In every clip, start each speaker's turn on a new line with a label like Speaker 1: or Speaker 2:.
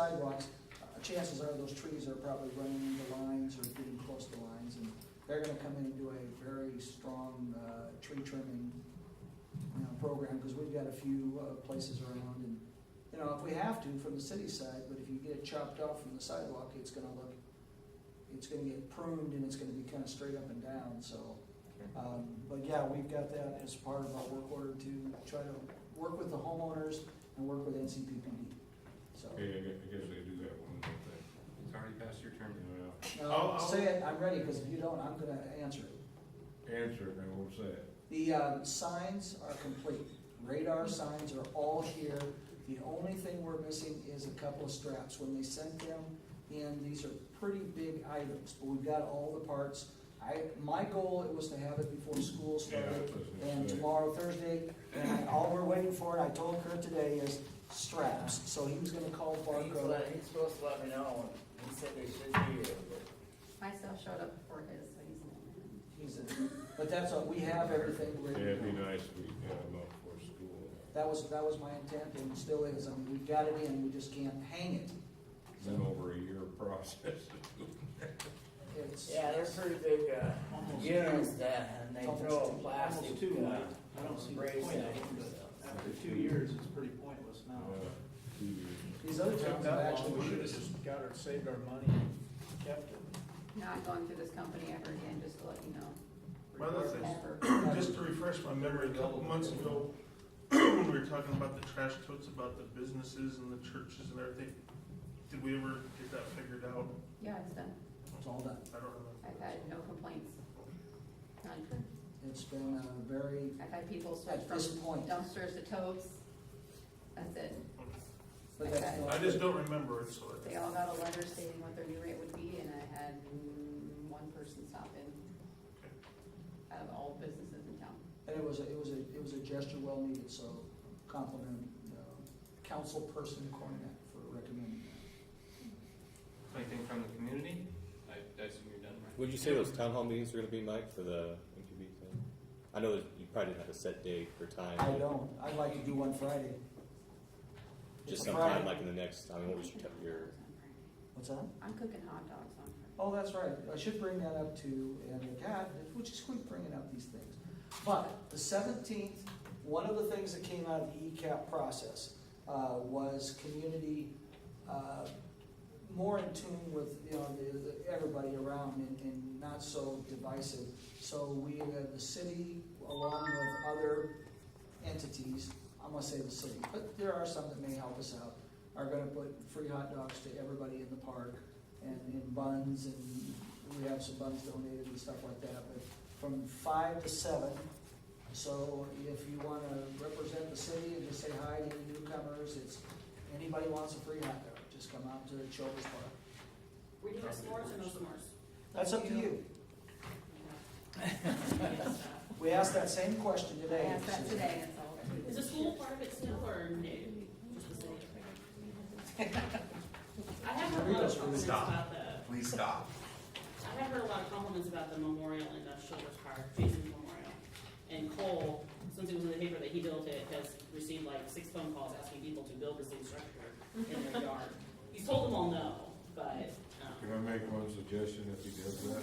Speaker 1: sidewalks, uh, chances are those trees are probably running into lines or getting close to lines, and they're gonna come in and do a very strong, uh, tree trimming, you know, program, because we've got a few, uh, places around, and, you know, if we have to, from the city side, but if you get it chopped off from the sidewalk, it's gonna look, it's gonna get pruned and it's gonna be kinda straight up and down, so. Um, but yeah, we've got that as part of our work order to try to work with the homeowners and work with NCPPD, so.
Speaker 2: Okay, I guess, I guess I do that one more thing. It's already past your turn, you know. I'll-
Speaker 1: No,
Speaker 2: I'll-
Speaker 1: say it, I'm ready, because if you don't, I'm gonna answer it.
Speaker 2: Answer it, I won't say it.
Speaker 1: The um, signs are complete, radar signs are all here. The only thing we're missing is a couple of straps. When they sent them in, these are pretty big items, but we've got all the parts. I, my goal, it was to have it before school
Speaker 2: Yeah,
Speaker 1: started,
Speaker 2: that's what I was gonna
Speaker 1: and
Speaker 2: say.
Speaker 1: tomorrow, Thursday, and all we're waiting for, and I told Kurt today, is straps. So he was gonna call
Speaker 3: He's
Speaker 1: Barco.
Speaker 3: let- he's supposed to let me know, and he said they should be here, but
Speaker 4: My stuff showed up before his, so he's not in.
Speaker 1: He's in. But that's all, we have everything ready.
Speaker 2: Yeah, it'd be nice if we got them up for school.
Speaker 1: That was, that was my intent and still is. I mean, we've got it in, we just can't hang it.
Speaker 2: It's been over a year process.
Speaker 1: It's,
Speaker 3: yeah, they're pretty big, uh,
Speaker 5: Almost
Speaker 3: units
Speaker 5: two.
Speaker 3: that, and they
Speaker 1: Almost
Speaker 3: throw a
Speaker 1: two.
Speaker 3: plastic,
Speaker 5: Almost two,
Speaker 3: uh,
Speaker 5: I don't see the
Speaker 3: brace
Speaker 5: point of
Speaker 3: at
Speaker 5: it,
Speaker 3: it and
Speaker 5: but-
Speaker 3: stuff.
Speaker 5: After two years, it's pretty pointless
Speaker 2: Uh,
Speaker 5: now.
Speaker 2: two years.
Speaker 1: these other towns have actually.
Speaker 5: We should've just got our, saved our money and kept it.
Speaker 4: Not going through this company ever again, just to let you know.
Speaker 6: My other thing,
Speaker 4: Ever.
Speaker 6: just to refresh my memory, a couple months ago, when we were talking about the trash totes, about the businesses and the churches and everything, did we ever get that figured out?
Speaker 4: Yeah, it's done.
Speaker 1: It's all done.
Speaker 6: I don't
Speaker 4: I've
Speaker 6: remember.
Speaker 4: had no complaints. None.
Speaker 1: It's been a very,
Speaker 4: I've had people switch
Speaker 1: at
Speaker 4: from
Speaker 1: this point,
Speaker 4: dumpsters to totes. That's it.
Speaker 1: but that's. not
Speaker 6: I just
Speaker 1: good.
Speaker 6: don't remember it, so. I-
Speaker 4: They all got a letter stating what their new rate would be, and I had mm, one person stop in out of all businesses in town.
Speaker 1: And it was, a- it was a, it was a gesture well needed, so compliment, uh, councilperson Cornet for recommending
Speaker 7: Anything from the community? I, I assume you're done, right?
Speaker 8: Would you say those town hall meetings were gonna be, Mike, for the MQB thing? I know that you probably didn't have a set date or time.
Speaker 1: that. I
Speaker 8: but
Speaker 1: don't, I'd like to do one Friday. It's
Speaker 8: Just
Speaker 1: a
Speaker 8: sometime,
Speaker 1: Friday.
Speaker 8: like in the next, I mean, what was your, t- your,
Speaker 1: What's that?
Speaker 4: I'm cooking hot dogs on Friday.
Speaker 1: Oh, that's right, I should bring that up too, and God, which is quick bringing up these things. But the seventeenth, one of the things that came out of the E ECAP process, uh, was community, uh, more in tune with, you know, the, the, everybody around and, and not so divisive. So we, uh, the city, along with other entities, I'm gonna say the city, but there are some that may help us out, are gonna put free hot dogs to everybody in the park and, and buns, and we have some buns donated and stuff like that, but from five to seven. So if you wanna represent the city and just say hi to any newcomers, it's, anybody wants a free hot dog, just come out to the Children's Park.
Speaker 4: Were you doing s'mores or no s'mores?
Speaker 1: That's up to you. We asked that same question
Speaker 4: I
Speaker 1: today.
Speaker 4: asked that today, it's all.
Speaker 9: Is the school part of it still or no? Just the city? I have heard a lot of compliments
Speaker 7: Stop.
Speaker 9: about the,
Speaker 7: Please stop.
Speaker 9: I have heard a lot of compliments about the memorial in the Shoulders Park, Jason's memorial. And Cole, since it was in the paper that he built it, has received like six phone calls asking people to build the same structure in their yard. He's told them all no, but,
Speaker 2: Can
Speaker 9: um,
Speaker 2: I make one suggestion if he does that?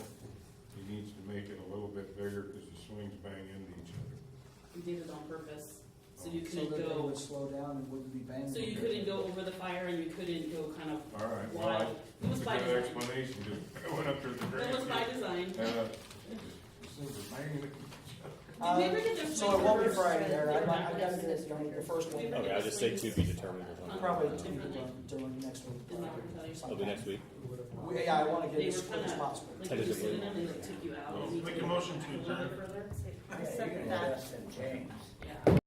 Speaker 2: He needs to make it a little bit bigger because the swings bang into each other.
Speaker 9: he did it on purpose, so you
Speaker 1: So
Speaker 9: couldn't
Speaker 1: that they
Speaker 9: go,
Speaker 1: would slow down and wouldn't be banging.
Speaker 9: so you couldn't go over the fire and you couldn't go kind of
Speaker 2: All right, well,
Speaker 9: wild. It
Speaker 2: that's
Speaker 9: was
Speaker 2: a
Speaker 9: by
Speaker 2: good
Speaker 9: design.
Speaker 2: explanation, just I went up to the
Speaker 9: That was by design.
Speaker 2: Uh, just- just banging into each other.
Speaker 1: Uh,
Speaker 9: Did we ever get those
Speaker 1: So it won't be
Speaker 9: reversed?
Speaker 1: Friday, Eric, I've, I've
Speaker 9: Did
Speaker 1: gotta get it, done the first
Speaker 9: we
Speaker 1: one,
Speaker 9: ever
Speaker 8: okay,
Speaker 9: get
Speaker 8: I'll
Speaker 9: those
Speaker 8: just say to
Speaker 9: swings?
Speaker 8: be determined or something.
Speaker 1: probably
Speaker 9: Uh,
Speaker 1: to be done during next week.
Speaker 9: Is that what I'm telling you?
Speaker 8: It'll be next week.
Speaker 1: We- Yeah, I wanna get
Speaker 9: They
Speaker 1: it as
Speaker 9: were
Speaker 1: quick as
Speaker 9: kinda-
Speaker 1: possible.
Speaker 9: Like, you just sit in them, they like took you out.
Speaker 6: Make a motion to
Speaker 9: A little bit
Speaker 6: adjourn.
Speaker 9: further?
Speaker 3: Yeah, you can adjust and change.
Speaker 9: Yeah.